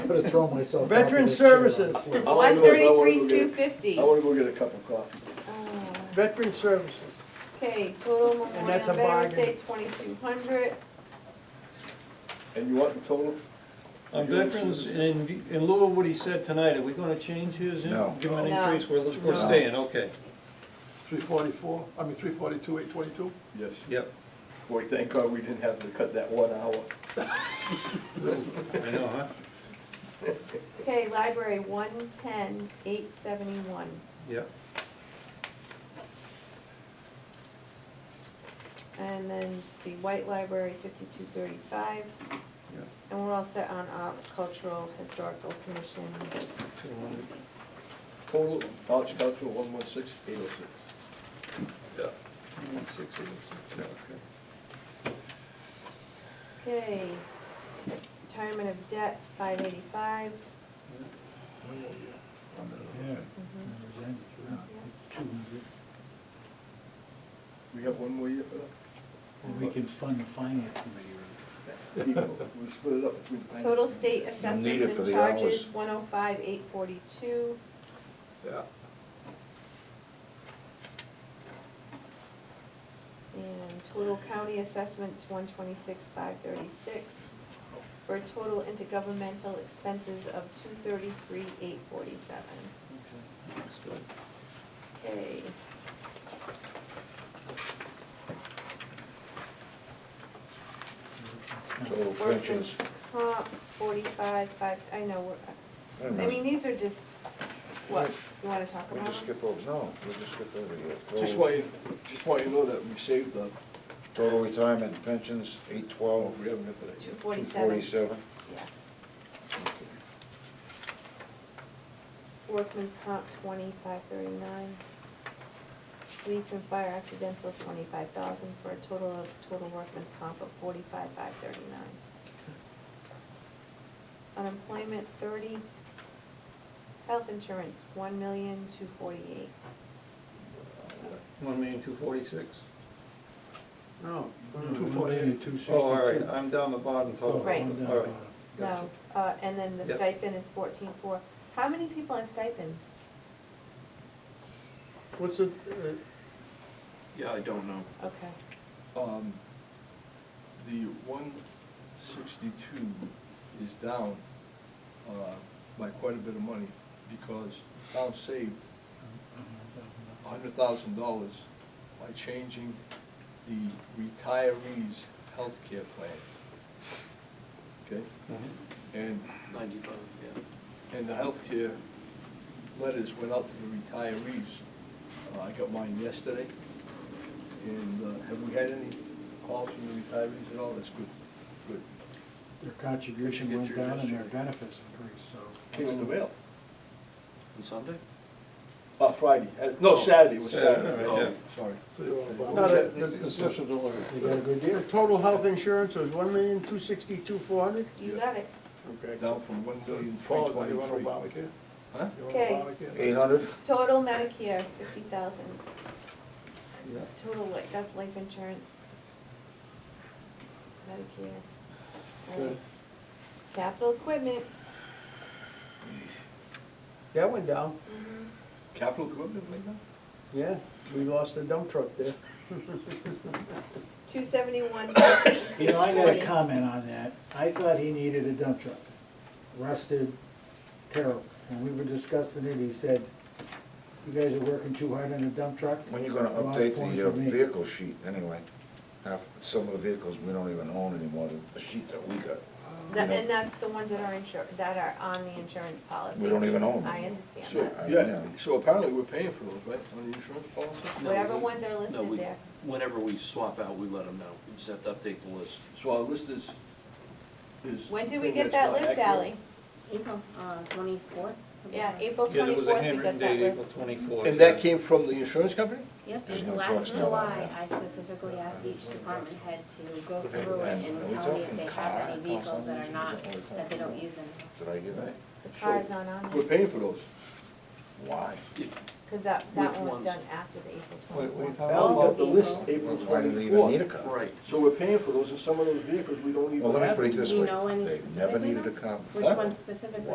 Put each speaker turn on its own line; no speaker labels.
could have thrown myself. out
Veteran
of the chair on
Services.
the floor.
All I
One
know is I wanna go
thirty-three,
get-
two fifty.
I wanna go get a cup of coffee.
Veteran Services.
Okay, total Memorial
that's a
Veterans
bargain.
Day, twenty-two hundred.
And you want the total?
On veterans, in, in lieu of what he said tonight, are we gonna change his, in-
No.
give him an
No.
increase, we're, we're
No.
staying, okay,
Three forty-four, I mean, three forty-two, eight twenty-two?
Yes.
yep,
Boy, thank God we didn't have to cut that one hour.
I know, huh?
Okay, library, one-ten, eight seventy-one.
Yep,
And then the White Library, fifty-two thirty-five.
yep.
And we're all set on our cultural historical commission.
Two hundred.
Total, Arch Cultural, one one six, eight oh six.
Yeah. One six eight
oh
six, yeah, okay.
Okay. Retirement of debt, five eighty-five.
Yeah. and it was ended, yeah, 200.
We have one more year for that?
And we can fund the finance committee. right?
We'll split it up between the finance.
Total
and-
state
need it
assessments
for
and
the
charges,
hours.
one oh five, eight forty-two.
Yeah.
And total county assessments, one twenty-six, five thirty-six. For a total intergovernmental expenses of two thirty-three, eight forty-seven.
Okay, that's good.
Okay.
It's kind of-
So pensions,
Comp, forty-five, five, I know, we're,
wait a
I mean,
minute,
these are just, what,
Yes.
you wanna talk
we
about
just
them?
skip over, no, we just skip over here.
Just
Total-
want you, just want you to know that we saved the,
Total retirement pensions, eight
oh,
twelve,
we haven't got to that
Two
yet.
two
forty-seven,
forty-seven.
yeah. Workman's comp twenty-five thirty-nine. Police and fire accidental twenty-five thousand for a total of, total workman's comp of forty-five five thirty-nine. Unemployment thirty. Health insurance, one million two forty-eight.
One million two forty-six?
No.
Two forty-eight, two sixty-two.
Oh, all right, I'm down the bottom
Oh,
total.
Right.
I'm down
All right,
bottom.
gotcha.
No, uh, and then the
Yep.
stipend is fourteen-four. How many people have stipends?
What's the,
Yeah, I don't know.
Okay,
Um, the one sixty-two is down, uh, by quite a bit of money, because town saved a hundred thousand dollars by changing the retirees' healthcare plan. Okay, and. Ninety-five, yeah. And the healthcare letters went out to the retirees. Uh, I got mine yesterday. And uh, have we had any calls from the retirees at all? That's good, good.
Their contribution
Get
went
your
down and
history.
their benefits increased, so.
Came in the mail.
On Sunday? Oh.
Uh, Friday, Uh, no, Saturday, it was
Saturday,
Saturday.
all right,
Oh, Sorry.
So you're on
What
bottom.
No,
was
that-
that?
that's the special delivery.
They got a good
Your
deal.
total health insurance was one million two sixty-two four hundred?
you
Yeah.
got it.
Okay.
Down from one million three
Paul, are you on
twenty-three.
Obamacare?
Huh?
You're on
Okay.
Obamacare?
Eight hundred,
Total Medicare, fifty thousand.
Yeah.
Total, like, that's life insurance. Medicare. All right.
Good.
Capital equipment.
That went down,
Mm-hmm.
Capital equipment, like that?
yeah, we lost a dump truck there.
Two seventy-one,
You know, I got a comment on that. I thought he needed a dump truck. Rusted, terrible. When we were discussing it, he said, you guys are working too hard on a dump truck.
when you gonna
The last
update
one's
the uh,
for me.
vehicle sheet, anyway? Half, some of the vehicles we don't even own anymore, the- the sheet that we got,
And that's the ones that are insur, that are on the insurance policy.
we don't even own.
I
them.
understand
So,
that.
I-
Yeah, so apparently we're paying for those, right, on the insurance policy?
No,
Whatever
we-
ones are
No,
listed
we,
there.
whenever we swap out, we let them know. We just have to update the list.
So our list is, is.
When did we
thing
get
that's
that
not
list,
accurate.
Ally?
April uh, twenty-fourth?
Yeah, April
Yeah, there
twenty-fourth,
was a
we got
handwritten
that
date,
list.
April twenty-fourth.
And that came from the insurance company?
Yep,
There's
and
no
last
trucks now on
July,
that.
I specifically asked each department head to go
So they-
through it
and are we
and tell me
talking
if they
car
have any vehicles that are not, that they don't use anymore.
Did I get that?
The car's not on
We're
there.
paying for those.
Why?
If,
Because that, that
Which
one was
ones?
done after the April
Wait, wait,
twenty-fourth.
how
Val
about
got the list April
Why do they even need a
twenty-fourth.
cop?
Right.
So we're paying for those, and some of those vehicles we don't even
Well, let me
have.
put it this
Do you
way,
know any
they never
specifically
needed a
now?
cop.
Which one specifically?